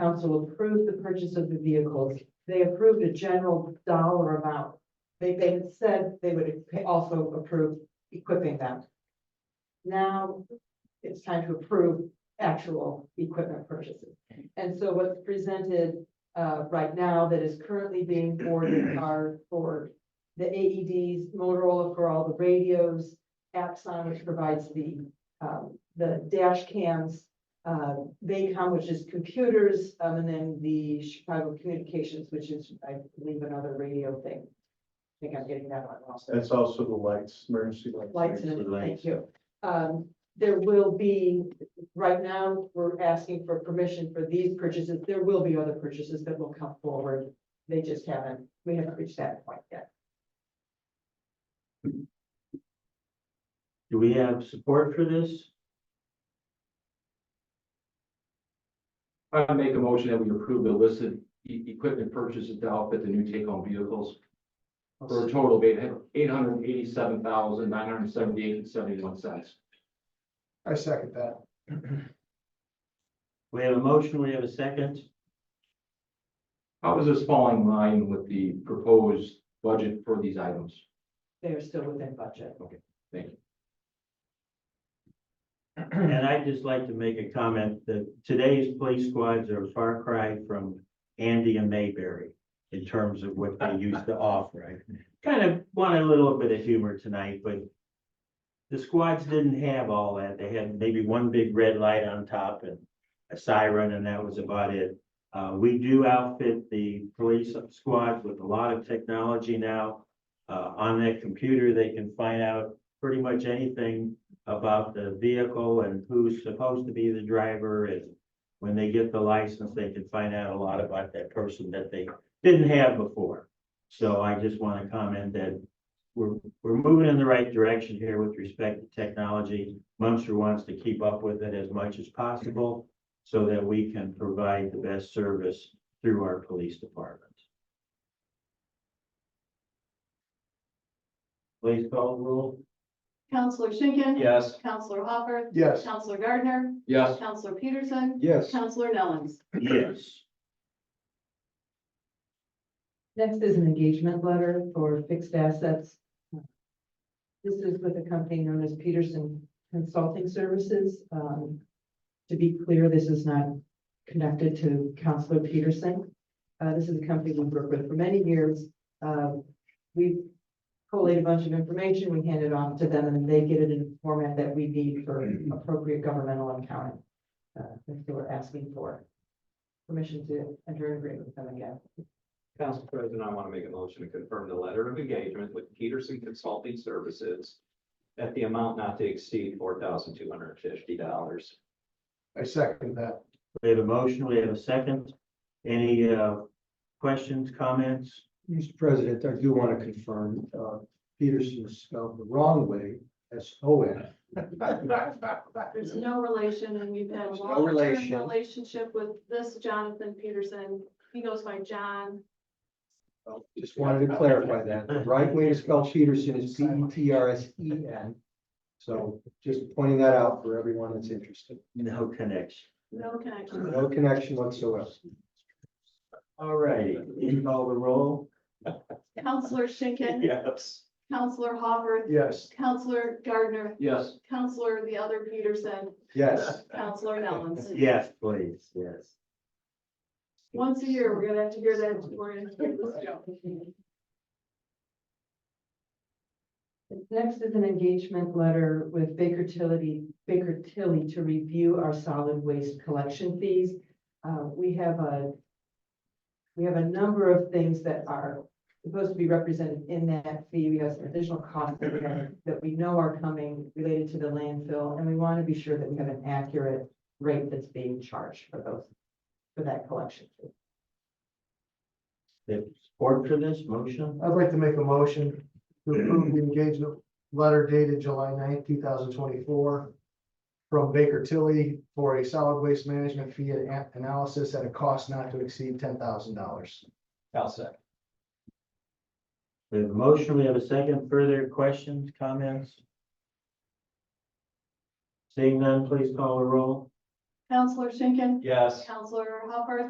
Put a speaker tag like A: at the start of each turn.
A: council approved the purchase of the vehicles. They approved a general dollar amount. They, they had said they would pa- also approve equipping them. Now, it's time to approve actual equipment purchases. And so what's presented, uh, right now that is currently being boarded are for the AEDs, Motorola for all the radios, Axon, which provides the, um, the dash cams, uh, Baycom, which is computers, um, and then the Chicago Communications, which is, I believe, another radio thing. I think I'm getting that one also
B: That's also the lights, emergency lights.
A: lights and, thank you. Um, there will be, right now, we're asking for permission for these purchases. There will be other purchases that will come forward. They just haven't, we haven't reached that point yet.
C: Do we have support for this?
D: I make a motion that we approve the listed e- equipment purchases to outfit the new take-home vehicles for a total of eight hundred eighty-seven thousand, nine hundred seventy-eight and seventy-one cents.
B: I second that.
C: We have a motion, we have a second.
D: How is this falling in line with the proposed budget for these items?
A: They are still within budget.
C: And I'd just like to make a comment that today's police squads are a far cry from Andy and Mayberry in terms of what they used to offer. I kind of want a little bit of humor tonight, but the squads didn't have all that. They had maybe one big red light on top and a siren, and that was about it. Uh, we do outfit the police squads with a lot of technology now. Uh, on that computer, they can find out pretty much anything about the vehicle and who's supposed to be the driver and when they get the license, they can find out a lot about that person that they didn't have before. So I just want to comment that we're, we're moving in the right direction here with respect to technology. Munster wants to keep up with it as much as possible so that we can provide the best service through our police department. Please call the roll.
E: Counselor Schinkin.
D: Yes.
E: Counselor Hopper.
B: Yes.
E: Counselor Gardner.
D: Yes.
E: Counselor Peterson.
B: Yes.
E: Counselor Nellens.
C: Yes.
A: Next is an engagement letter for fixed assets. This is with a company known as Peterson Consulting Services. Um, to be clear, this is not connected to Counselor Peterson. Uh, this is a company we've worked with for many years. Um, we collate a bunch of information, we hand it off to them, and they get it in the format that we need for appropriate governmental accounting. Uh, if they were asking for permission to enter an agreement with them again.
F: Council President, I want to make a motion to confirm the letter of engagement with Peterson Consulting Services at the amount not to exceed four thousand two hundred and fifty dollars.
B: I second that.
C: We have a motion, we have a second. Any uh, questions, comments?
B: Mr. President, I do want to confirm, uh, Peterson is spelled the wrong way, S O N.
E: There's no relation and we've had a
B: There's no
E: long-term
B: relation.
E: relationship with this Jonathan Peterson. He goes by John.
B: Just wanted to clarify that. The right way to spell Peterson is P E T R S E N. So just pointing that out for everyone that's interested.
C: No connection.
E: No connection.
B: No connection whatsoever.
C: All righty, you call the roll?
E: Counselor Schinkin.
F: Yes.
E: Counselor Hopper.
B: Yes.
E: Counselor Gardner.
D: Yes.
E: Counselor the other Peterson.
B: Yes.
E: Counselor Nellens.
C: Yes, please, yes.
E: Once a year, we're gonna have to hear that. We're gonna hear this joke.
A: Next is an engagement letter with Baker Tilly, Baker Tilly to review our solid waste collection fees. Uh, we have a, we have a number of things that are supposed to be represented in that fee. We have some additional costs that we have- that we know are coming related to the landfill, and we want to be sure that we have an accurate rate that's being charged for those, for that collection. fee.
C: The Support for this motion?
G: I'd like to make a motion to approve the engagement letter dated July 9th, two thousand twenty-four from Baker Tilly for a solid waste management fee and a- analysis at a cost not to exceed ten thousand dollars.
F: I'll second.
C: We have a motion, we have a second. Further questions, comments? Seeing none, please call the roll.
E: Counselor Schinkin.
F: Yes.
E: Counselor Hopper.